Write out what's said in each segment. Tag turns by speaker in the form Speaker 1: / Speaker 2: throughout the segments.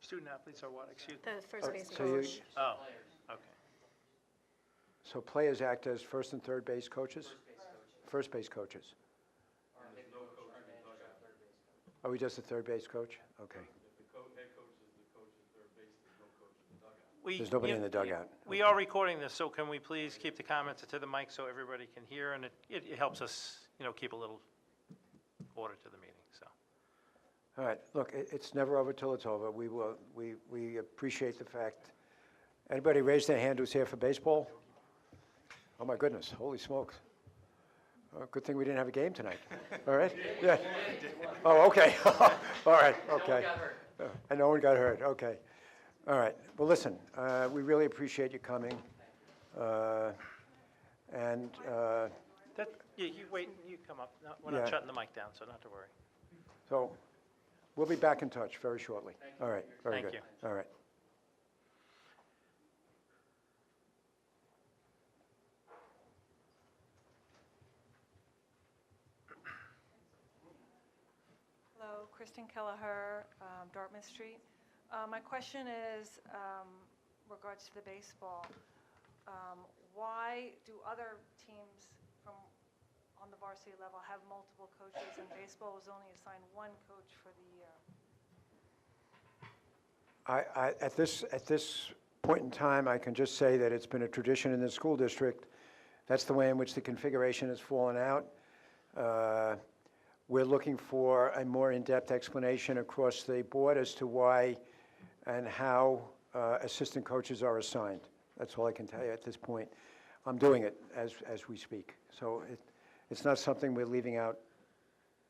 Speaker 1: Student athletes are what, excuse me?
Speaker 2: The first
Speaker 3: Oh,
Speaker 2: base
Speaker 3: so you-
Speaker 2: coach.
Speaker 1: Oh, okay.
Speaker 3: So players act as first and third base coaches? First base coaches. Are we just a third base coach? Okay.
Speaker 1: We-
Speaker 3: There's nobody in
Speaker 1: you-
Speaker 3: the dugout.
Speaker 1: We are recording this, so can we please keep the comments to the mic so everybody can hear? And it, it it helps us, you know, keep a little order to the meeting, so.
Speaker 3: All right, look, it, it's never over till it's over. We will, we, we appreciate the fact. Anybody raise their hand who's here for baseball? Oh, my goodness, holy smokes. Uh, Good thing we didn't have a game tonight, all right? Yeah. Oh, okay, all right, okay. Uh, And no one got hurt, okay. All right, well, listen, uh, we really appreciate you coming. Uh, And, uh,
Speaker 1: That, you, you wait, you come up, No, we're not
Speaker 3: Yeah.
Speaker 1: shutting the mic down, so not to worry.
Speaker 3: So we'll be back in touch very shortly. All right, very
Speaker 1: Thank
Speaker 3: good. All right.
Speaker 4: Hello, Kristen Kelleher, um, Dartmouth Street. Uh, My question is um, regards to the baseball. Um, Why do other teams from, on the varsity level have multiple coaches and baseball was only assigned one coach for the year?
Speaker 3: I, I, at this, at this point in time, I can just say that it's been a tradition in the school district. That's the way in which the configuration has fallen out. Uh, We're looking for a more in-depth explanation across the board as to why and how uh, assistant coaches are assigned. That's all I can tell you at this point. I'm doing it as, as we speak. So it, it's not something we're leaving out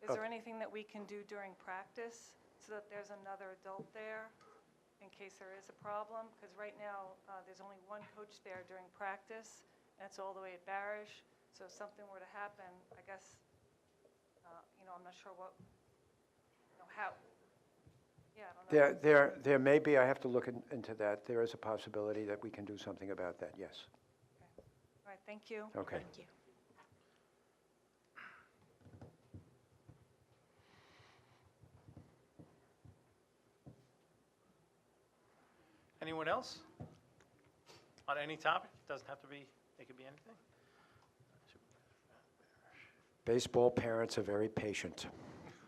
Speaker 4: Is there anything that we can do during practice so that there's another adult there in case there is a problem? Because right now, uh, there's only one coach there during practice, and it's all the way at Barish. So if something were to happen, I guess, uh, you know, I'm not sure what, you know, how, yeah, I don't know.
Speaker 3: There, there, there may be, I have to look in- into that. There is a possibility that we can do something about that, yes.
Speaker 4: All right, thank you.
Speaker 3: Okay.
Speaker 2: you.
Speaker 1: Anyone else? On any topic? Doesn't have to be, it could be anything.
Speaker 3: Baseball parents are very patient.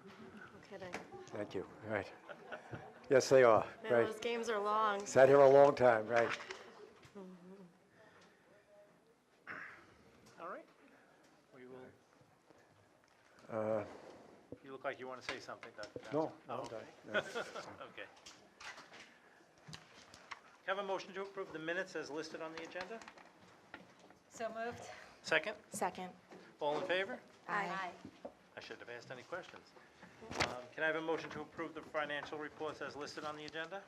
Speaker 2: No kidding.
Speaker 3: Thank you, right. Yes, they are,
Speaker 2: Man,
Speaker 3: right.
Speaker 2: those games are long.
Speaker 3: Sat here a long time, right.
Speaker 1: All right. We will. You look like you want to say something, Dr.
Speaker 3: Uh, No,
Speaker 1: Johnson.
Speaker 3: no,
Speaker 1: Oh,
Speaker 3: I'm
Speaker 1: okay.
Speaker 3: done,
Speaker 1: Okay. Have a motion to approve the minutes as listed on the agenda?
Speaker 4: So moved.
Speaker 1: Second?
Speaker 5: Second.
Speaker 1: All in favor?
Speaker 5: Aye.
Speaker 1: I should have asked any questions. Um, Can I have a motion to approve the financial reports as listed on the agenda?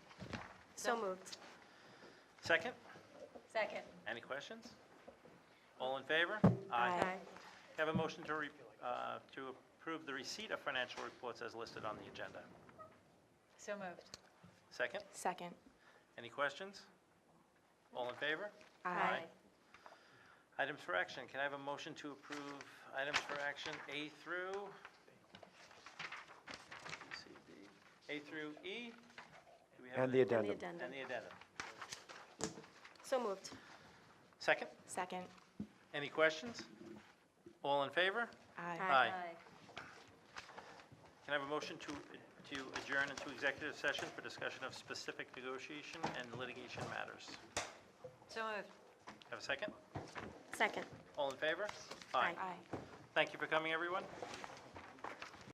Speaker 2: So moved.
Speaker 1: Second?
Speaker 4: Second.
Speaker 1: Any questions? All in favor?
Speaker 5: Aye.
Speaker 1: Have a motion to, re- uh, to approve the receipt of financial reports as listed on the agenda.
Speaker 4: So moved.
Speaker 1: Second?
Speaker 5: Second.
Speaker 1: Any questions? All in favor?
Speaker 5: Aye.
Speaker 1: Items for action, can I have a motion to approve items for action A through? C, D, A through E? Do we have
Speaker 3: And
Speaker 1: a-
Speaker 3: the addendum.
Speaker 2: addendum.
Speaker 1: And the addendum.
Speaker 2: So moved.
Speaker 1: Second,
Speaker 5: Second.
Speaker 1: any questions? All in favor?
Speaker 5: Aye.
Speaker 2: Aye.
Speaker 1: Can I have a motion to, to adjourn into executive session for discussion of specific negotiation and litigation matters?
Speaker 4: So moved.
Speaker 1: Have a second?
Speaker 2: Second.
Speaker 1: All in favor?
Speaker 2: Aye.
Speaker 5: Aye.
Speaker 1: Thank you for coming, everyone.